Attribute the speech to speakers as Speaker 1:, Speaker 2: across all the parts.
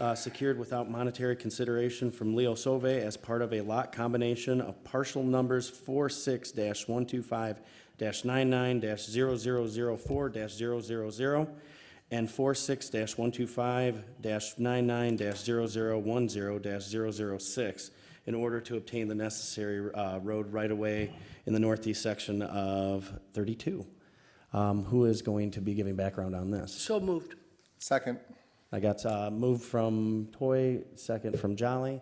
Speaker 1: uh, secured without monetary consideration from Leo Sove as part of a lot combination of partial numbers four six dash one two five dash nine nine dash zero zero zero four dash zero zero zero and four six dash one two five dash nine nine dash zero zero one zero dash zero zero six in order to obtain the necessary uh, road right-of-way in the northeast section of 32. Um, Who is going to be giving background on this?
Speaker 2: So moved.
Speaker 3: Second.
Speaker 1: I got uh, moved from Toy, second from Jolly.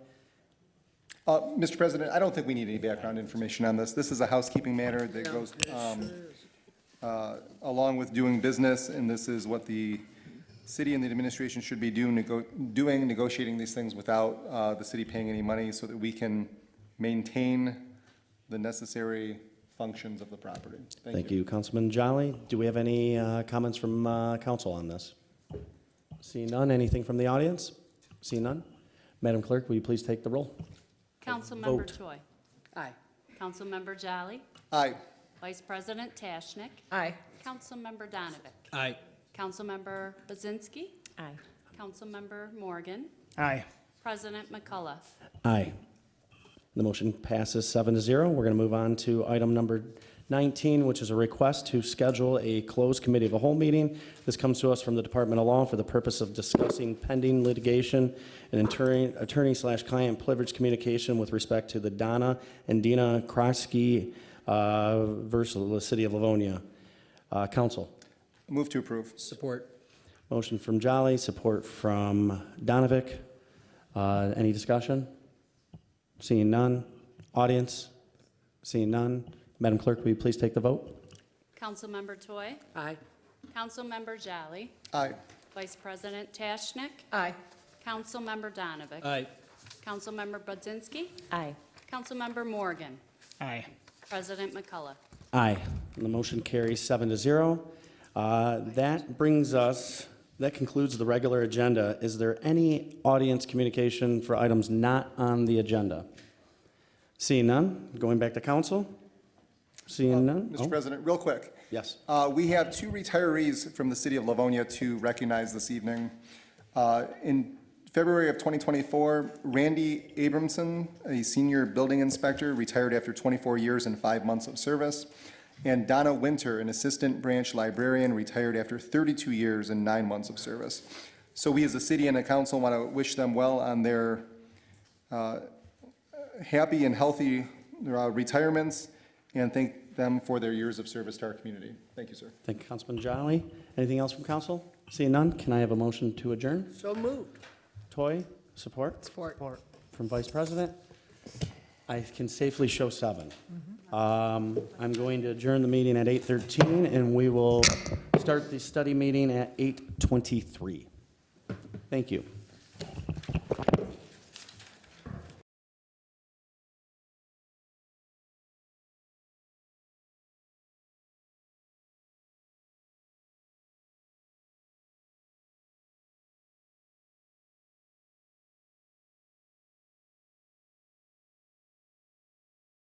Speaker 3: Uh, Mr. President, I don't think we need any background information on this. This is a housekeeping matter that goes um, uh, along with doing business, and this is what the city and the administration should be do- nego- doing, negotiating these things without uh, the city paying any money so that we can maintain the necessary functions of the property.
Speaker 1: Thank you, Councilman Jolly. Do we have any uh, comments from uh, council on this? Seeing none, anything from the audience? Seeing none? Madam Clerk, will you please take the roll?
Speaker 4: Councilmember
Speaker 1: Vote.
Speaker 4: Choi.
Speaker 2: Aye.
Speaker 4: Councilmember Jolly.
Speaker 3: Aye.
Speaker 4: Vice President Tashnik.
Speaker 2: Aye.
Speaker 4: Councilmember Donovan.
Speaker 5: Aye.
Speaker 4: Councilmember Bazinski.
Speaker 2: Aye.
Speaker 4: Councilmember Morgan.
Speaker 5: Aye.
Speaker 4: President McCullough.
Speaker 1: Aye. The motion passes seven to zero. We're going to move on to item number 19, which is a request to schedule a closed committee of a whole meeting. This comes to us from the Department of Law for the purpose of discussing pending litigation and attorney- attorney slash client privilege communication with respect to the Donna and Dina Krosky uh, versus the City of Livonia. Uh, Counsel?
Speaker 3: Move to approve.
Speaker 5: Support.
Speaker 1: Motion from Jolly, support from Donovic. Uh, Any discussion? Seeing none. Audience? Seeing none. Madam Clerk, will you please take the vote?
Speaker 4: Councilmember Toy.
Speaker 2: Aye.
Speaker 4: Councilmember Jolly.
Speaker 3: Aye.
Speaker 4: Vice President Tashnik.
Speaker 2: Aye.
Speaker 4: Councilmember Donovan.
Speaker 5: Aye.
Speaker 4: Councilmember Bazinski.
Speaker 2: Aye.
Speaker 4: Councilmember Morgan.
Speaker 5: Aye.
Speaker 4: President McCullough.
Speaker 1: Aye. And the motion carries seven to zero. Uh, That brings us, that concludes the regular agenda. Is there any audience communication for items not on the agenda? Seeing none. Going back to council? Seeing none?
Speaker 3: Mr.
Speaker 1: Oh,
Speaker 3: President, real quick.
Speaker 1: Yes.
Speaker 3: Uh, We have two retirees from the city of Livonia to recognize this evening. Uh, In February of 2024, Randy Abramson, a senior building inspector, retired after 24 years and five months of service, and Donna Winter, an assistant branch librarian, retired after 32 years and nine months of service. So we, as a city and a council, want to wish them well on their happy and healthy uh, retirements, and thank them for their years of service to our community. Thank you, sir.
Speaker 1: Thank you, Councilman Jolly. Anything else from council? Seeing none, can I have a motion to adjourn?
Speaker 2: So moved.
Speaker 1: Toy, support
Speaker 2: Support.
Speaker 1: from Vice President. I can safely show seven. Um, I'm going to adjourn the meeting at 8:13, and we will start the study meeting at 8:23. Thank you.